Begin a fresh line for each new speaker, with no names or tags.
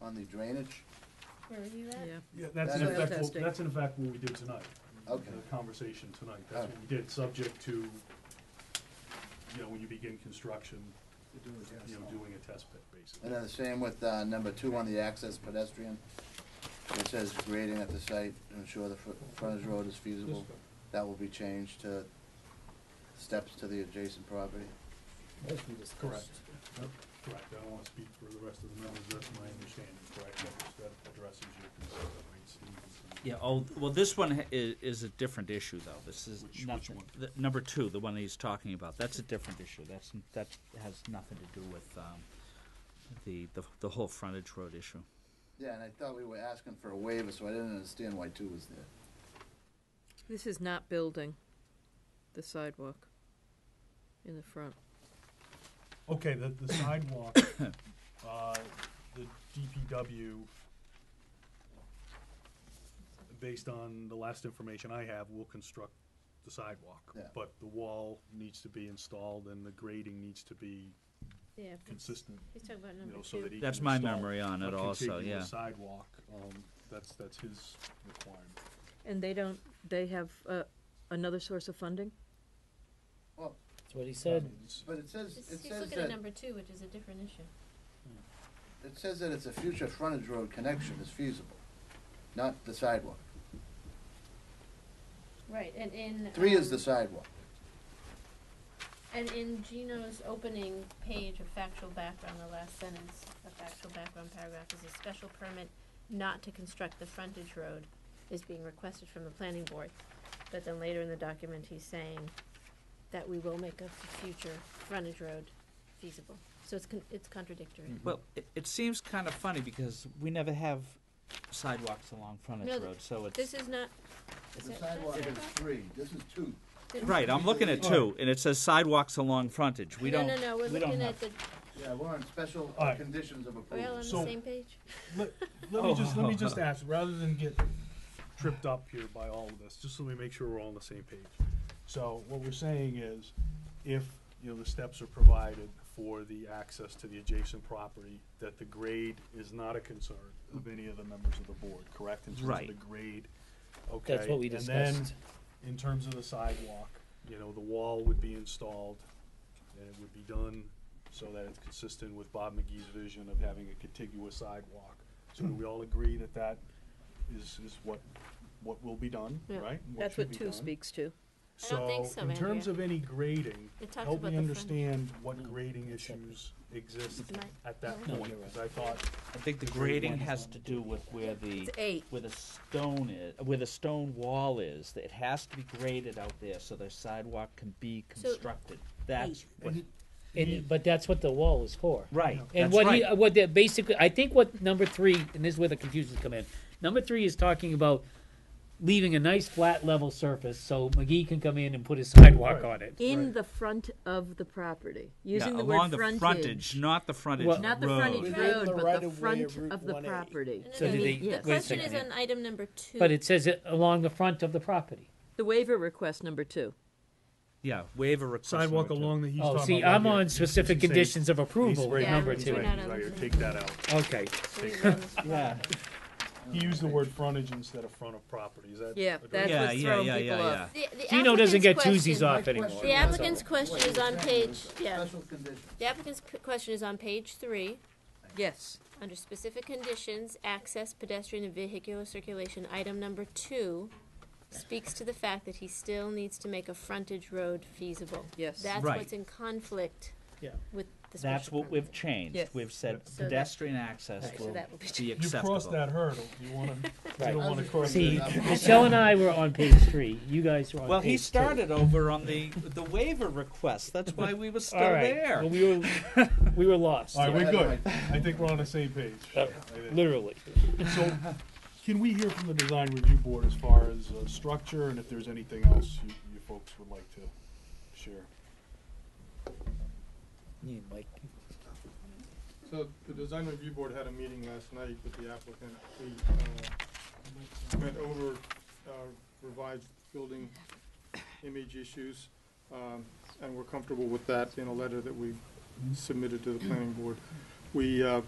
on the drainage?
Where are you at?
Yeah,
Yeah, that's in
Soil
effect, what-
testing.
that's in effect what we did tonight.
Okay.
The conversation tonight, that's what we did, subject to, you know, when you begin construction, you know, doing a test pit,
And then
basically.
the same with, uh, number two on the access pedestrian. It says grading at the site, to ensure the fr- frontage road is feasible. That will be changed to steps to the adjacent property.
Correct. Yep, Correct, I don't wanna speak for the rest of the members, that's my understanding, correct, That- that addresses your concern, right, Steve?
Yeah, oh, well, this one is, is a different issue, though. This is
Which- which
nothing.
one?
the- number two, the one he's talking about, that's a different issue. That's, that has nothing to do with, um, the, the, the whole frontage road issue.
Yeah, and I thought we were asking for a waiver, so I didn't understand why two was there.
this is not building the sidewalk in the front.
Okay, the, the sidewalk, uh, the DPW, based on the last information I have, will construct the sidewalk.
Yeah.
But the wall needs to be installed and the grading needs to be
Yeah.
consistent,
He's talking about
you
number
know, so that
two.
he
That's
can
my
install
memory on
a
it also,
contiguous
yeah.
Sidewalk, um, that's, that's his requirement.
And they don't, they have, uh, another source of funding?
Well,
That's what he said.
It's-
but it says, it
He's he's
says
looking at
that,
number two, which is a different issue.
it says that it's a future frontage road connection is feasible, not the sidewalk.
Right, and in.
Three is
um,
the sidewalk.
And in Gino's opening page of factual background, the last sentence, the factual background paragraph is a special permit not to construct the frontage road is being requested from the planning board. But then later in the document, he's saying that we will make a future frontage road feasible. So it's con- it's contradictory.
Well, it, it seems kind of funny because we never have sidewalks along
No,
frontage
th-
road, so it's.
This is not. is
The
it- that's
sidewalk is
sidewalk?
three, this is two.
Right, I'm looking
Oh.
at two, and it says sidewalks along frontage. We don't,
No, no, no, we're
we don't
looking at
have.
the,
Yeah, we're on special
All right.
conditions of
are we
approval.
all on the
So-
same page?
Let, let me just, let me just
Oh.
ask, rather than get tripped up here by all of this, just let me make sure we're all on the same page. So what we're saying is, if, you know, the steps are provided for the access to the adjacent property, that the grade is not a concern of any of the members of the board, correct? In terms of
Right.
the grade, okay?
That's what we
And then,
discussed.
in terms of the sidewalk, you know, the wall would be installed, and it would be done so that it's consistent with Bob McGee's vision of having a contiguous sidewalk. So do we all agree that that is, is what, what will be done,
Yeah.
right? And
That's
should
what
be
two
done?
speaks to.
I don't think so,
in terms
Andrea.
of any grading,
It talks
help
about
me
the front.
understand what grading issues exist
It's not-
at that
No,
point,
you're right.
because I thought,
I think the
the grade
grading
one is
has
on
to do with where the.
It's eight.
where the stone is, where the stone wall is, that it has to be graded out there so the sidewalk can be
So-
constructed. That's what,
And, but that's what the wall is for.
right,
And
that's
what he,
right.
what they basically, I think what number three, and this is where the confusion's come in. Number three is talking about leaving a nice flat level surface so McGee can come in and put his sidewalk on it.
In the front of the property, using
Yeah,
the
along
word
the frontage,
frontage.
not the frontage
Well-
Not the
road.
frontage
Within
road,
the
but
right
the
of way
front
of Route
of the
1A.
property.
No, no,
So
no,
do
the-
they-
The
Yes.
wait a
question is
second.
on item number two.
But it says it along the front of the property.
The waiver request number two.
Yeah, waiver request.
sidewalk
number two.
along the, he's
Oh,
talking
see,
about right
I'm
here.
on
He's
specific
saying-
conditions of approval
right
with
Yeah,
number
we're
he's
two.
not
he's
on
right here,
the-
Take that out.
Okay,
Yeah,
He used the word frontage instead of front of property, is that?
Yeah,
addressed?
that's
Yeah,
what's
yeah,
throwing
yeah,
people
yeah,
off.
The- the
Gino doesn't get
applicant's
twoozies
question-
off anymore.
The applicant's question is on page, yeah,
Special conditions.
the applicant's c- question is on page three,
Yes,
under specific conditions, access, pedestrian and vehicular circulation, item number two speaks to the fact that he still needs to make a frontage road feasible.
Yes.
That's
Right.
what's in conflict
Yeah.
with the special
that's what we've
permit.
changed.
Yes.
We've said
So that-
pedestrian access
Right, so
will
that will be
be
You crossed
acceptable.
that hurdle, you wanna, you
Right.
don't wanna cross
see,
that.
Michelle and I were on page three, you guys were on page two.
Well, he started over on the, the waiver request. That's why we were still
All right. Well,
there.
we were we were lost,
Alright, we're
Yeah.
good, I think we're on the same page.
Uh, literally.
So, can we hear from the design review board as far as, uh, structure and if there's anything else you, you folks would like to share?
You, Mike.
So the design review board had a meeting last night with the applicant. We uh, went over uh, revised building image issues, um, and we're comfortable with that in a letter that we submitted to the planning board. We uh,